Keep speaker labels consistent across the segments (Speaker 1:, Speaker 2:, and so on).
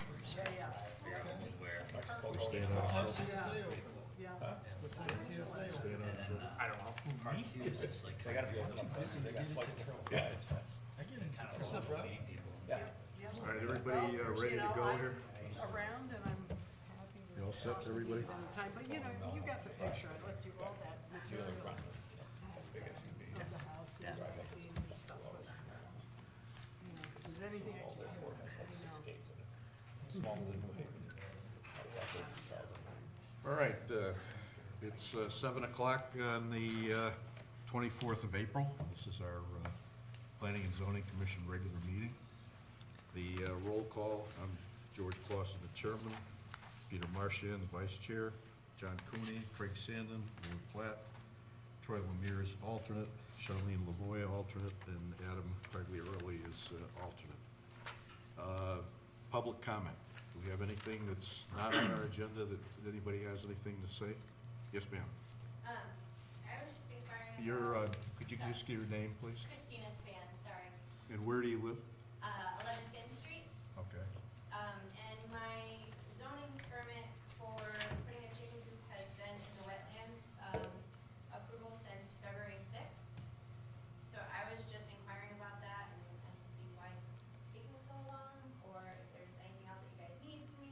Speaker 1: uh, We staying out of trouble,
Speaker 2: Yeah.
Speaker 1: staying out of trouble.
Speaker 3: I don't know.
Speaker 4: Mark Hughes is like.
Speaker 3: They gotta be open on Thursday, they got flooded
Speaker 1: Yeah.
Speaker 4: I get into
Speaker 3: Kind of
Speaker 4: trouble
Speaker 3: awesome,
Speaker 4: with meeting people.
Speaker 3: Yeah.
Speaker 2: Yeah.
Speaker 1: All right, everybody uh,
Speaker 2: Well,
Speaker 1: ready
Speaker 2: you
Speaker 1: to
Speaker 2: know,
Speaker 1: go
Speaker 2: I'm
Speaker 1: here?
Speaker 2: Around and I'm happy with.
Speaker 1: You all set,
Speaker 2: talking
Speaker 1: everybody?
Speaker 2: to you all the time, But you know, you got the picture, I left you all that material of the house and magazines and stuff. but, You know, if there's anything I can do, you know.
Speaker 1: All right, uh, it's uh, seven o'clock on the uh, twenty-fourth of April. This is our uh, Planning and Zoning Commission regular meeting. The uh, roll call, I'm George Clausen, the chairman, Peter Marchand, the vice chair, John Cooney, Craig Sandon, Lou Platt, Troy Lemire is alternate, Charlene Lavoy alternate, and Adam Cagliarelli is uh, alternate. Uh, Public comment. Do we have anything that's not on our agenda that that anybody has anything to say? Yes, ma'am.
Speaker 5: Um, I was just inquiring.
Speaker 1: Your, uh,
Speaker 5: about-
Speaker 1: could you just give your name, please?
Speaker 5: Christina Span, sorry.
Speaker 1: And where do you live?
Speaker 5: Uh, eleven Finn Street.
Speaker 1: Okay.
Speaker 5: Um, and my zoning permit for putting a chicken coop has been in the wetlands, um, approval since February sixth. So I was just inquiring about that and as to see why it's taking so long, or if there's anything else that you guys need from me.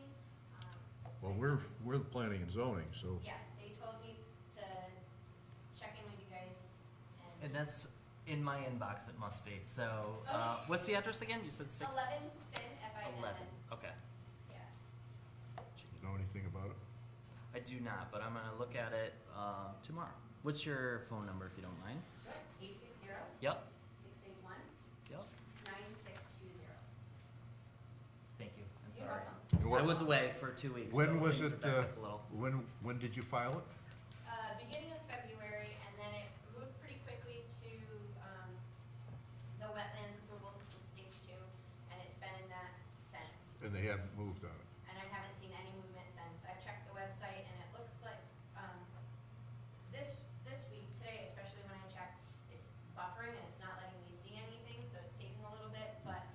Speaker 5: Um,
Speaker 1: Well, we're, we're the planning and zoning, so.
Speaker 5: Yeah, they told me to check in with you guys and.
Speaker 6: And that's in my inbox, it must be. So,
Speaker 5: Okay.
Speaker 6: uh, what's the address again? You said six?
Speaker 5: Eleven Finn, F I N N.
Speaker 6: Eleven. Okay.
Speaker 5: Yeah.
Speaker 1: You know anything about it?
Speaker 6: I do not, but I'm gonna look at it, uh, tomorrow. What's your phone number, if you don't mind?
Speaker 5: Sure. Eight six zero,
Speaker 6: Yep,
Speaker 5: six eight one,
Speaker 6: yep.
Speaker 5: nine six two zero.
Speaker 6: Thank you, I'm
Speaker 5: You're
Speaker 6: sorry.
Speaker 5: welcome.
Speaker 1: And
Speaker 6: I
Speaker 1: what-
Speaker 6: was away for two weeks.
Speaker 1: When
Speaker 6: so
Speaker 1: was
Speaker 6: things
Speaker 1: it,
Speaker 6: were backed
Speaker 1: uh,
Speaker 6: up a little.
Speaker 1: When, when did you file it?
Speaker 5: Uh, beginning of February, and then it moved pretty quickly to, um, the wetlands approval from stage two, and it's been in that since.
Speaker 1: And they haven't moved on it.
Speaker 5: And I haven't seen any movement since. I've checked the website, and it looks like, um, this, this week, today especially when I checked, it's buffering and it's not letting me see anything, so it's taking a little bit, but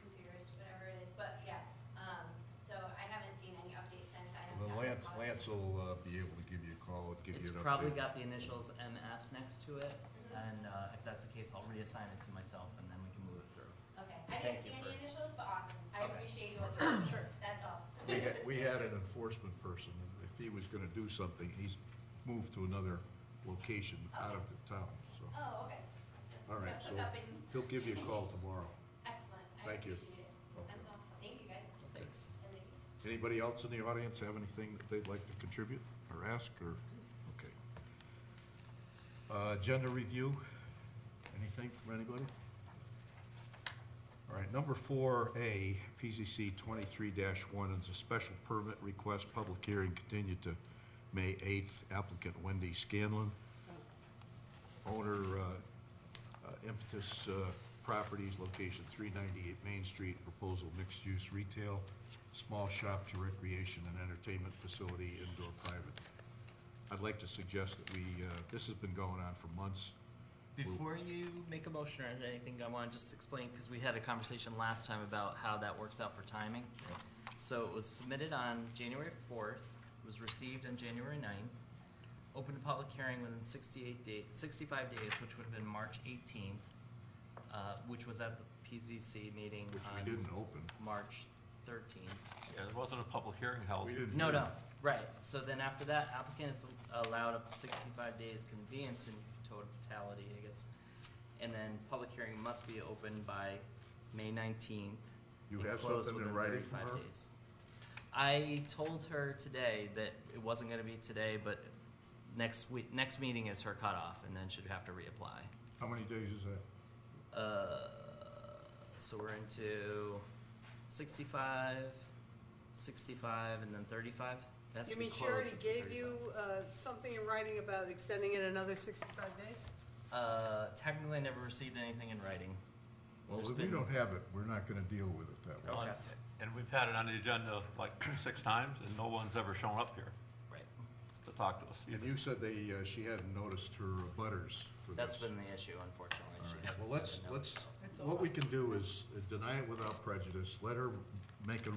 Speaker 5: computers, whatever it is, but yeah. Um, so I haven't seen any updates since I have.
Speaker 1: Well,
Speaker 5: gotten
Speaker 1: Lance,
Speaker 5: caught.
Speaker 1: Lance will uh, be able to give you a call and give
Speaker 6: It's
Speaker 1: you an update.
Speaker 6: probably got the initials MS next to it,
Speaker 5: Mhm.
Speaker 6: and, uh, if that's the case, I'll reassign it to myself and then we can move it through.
Speaker 5: Mm-hmm. Okay, I
Speaker 6: Thank
Speaker 5: didn't see
Speaker 6: you
Speaker 5: any
Speaker 6: for-
Speaker 5: initials, but awesome. I
Speaker 6: Okay.
Speaker 5: appreciate your work. Sure. That's all.
Speaker 1: We had, we had an enforcement person, and if he was gonna do something, he's moved to another location out of the town, so.
Speaker 5: Oh, okay. That's-
Speaker 1: All right,
Speaker 5: that's
Speaker 1: so
Speaker 5: look up and-
Speaker 1: he'll give you a call tomorrow.
Speaker 5: Excellent. I
Speaker 1: Thank you.
Speaker 5: appreciate it. That's all. Thank you, guys.
Speaker 6: Thanks.
Speaker 5: And thank you.
Speaker 1: Anybody else in the audience have anything that they'd like to contribute or ask or, okay. Uh, agenda review, anything from anybody? All right, number four A, PCC twenty-three one is a special permit request, public hearing continued to May eighth, applicant Wendy Scanlon. Owner, uh, uh, Impetus uh, Properties, location 398 Main Street, proposal mixed-use retail, small shop to recreation and entertainment facility, indoor private. I'd like to suggest that we, uh, this has been going on for months.
Speaker 6: Before you make a motion or anything, I wanna just explain, cause we had a conversation last time about how that works out for timing. So it was submitted on January fourth, was received on January 9th. opened a public hearing within sixty-eight day, sixty-five days, which would have been March eighteenth, uh, which was at the PZC meeting
Speaker 1: Which we
Speaker 6: on
Speaker 1: didn't open.
Speaker 6: March thirteenth.
Speaker 7: Yeah, there wasn't a public hearing held.
Speaker 1: We didn't.
Speaker 6: No,
Speaker 1: do
Speaker 6: no,
Speaker 1: it.
Speaker 6: right, so then after that, applicant is allowed up to sixty-five days convenience in totality, I guess. And then public hearing must be opened by May nineteenth.
Speaker 1: You
Speaker 6: and
Speaker 1: have
Speaker 6: closed
Speaker 1: something in
Speaker 6: within
Speaker 1: writing from
Speaker 6: 35
Speaker 1: her?
Speaker 6: days. I told her today that it wasn't gonna be today, but next week, next meeting is her cutoff, and then she'd have to reapply.
Speaker 1: How many days is that?
Speaker 6: Uh, so we're into sixty-five, sixty-five, and then thirty-five? It has to
Speaker 2: You
Speaker 6: be
Speaker 2: mean she
Speaker 6: closed
Speaker 2: already
Speaker 6: within
Speaker 2: gave
Speaker 6: 35.
Speaker 2: you, uh, something in writing about extending it another sixty-five days?
Speaker 6: Uh, technically, I never received anything in writing.
Speaker 1: Well,
Speaker 6: There's
Speaker 1: if we
Speaker 6: been-
Speaker 1: don't have it, we're not gonna deal with it that way.
Speaker 6: Okay.
Speaker 7: Uh, And we've had it on the agenda like six times, and no one's ever shown up here
Speaker 6: Right.
Speaker 7: to talk to us.
Speaker 1: And
Speaker 7: either.
Speaker 1: you said they, uh, she hadn't noticed her butters for this.
Speaker 6: That's been the issue, unfortunately.
Speaker 1: All
Speaker 6: She
Speaker 1: right,
Speaker 6: hasn't
Speaker 1: well, let's,
Speaker 6: gotten a notice.
Speaker 1: let's, what we can do is deny it without prejudice, let her make a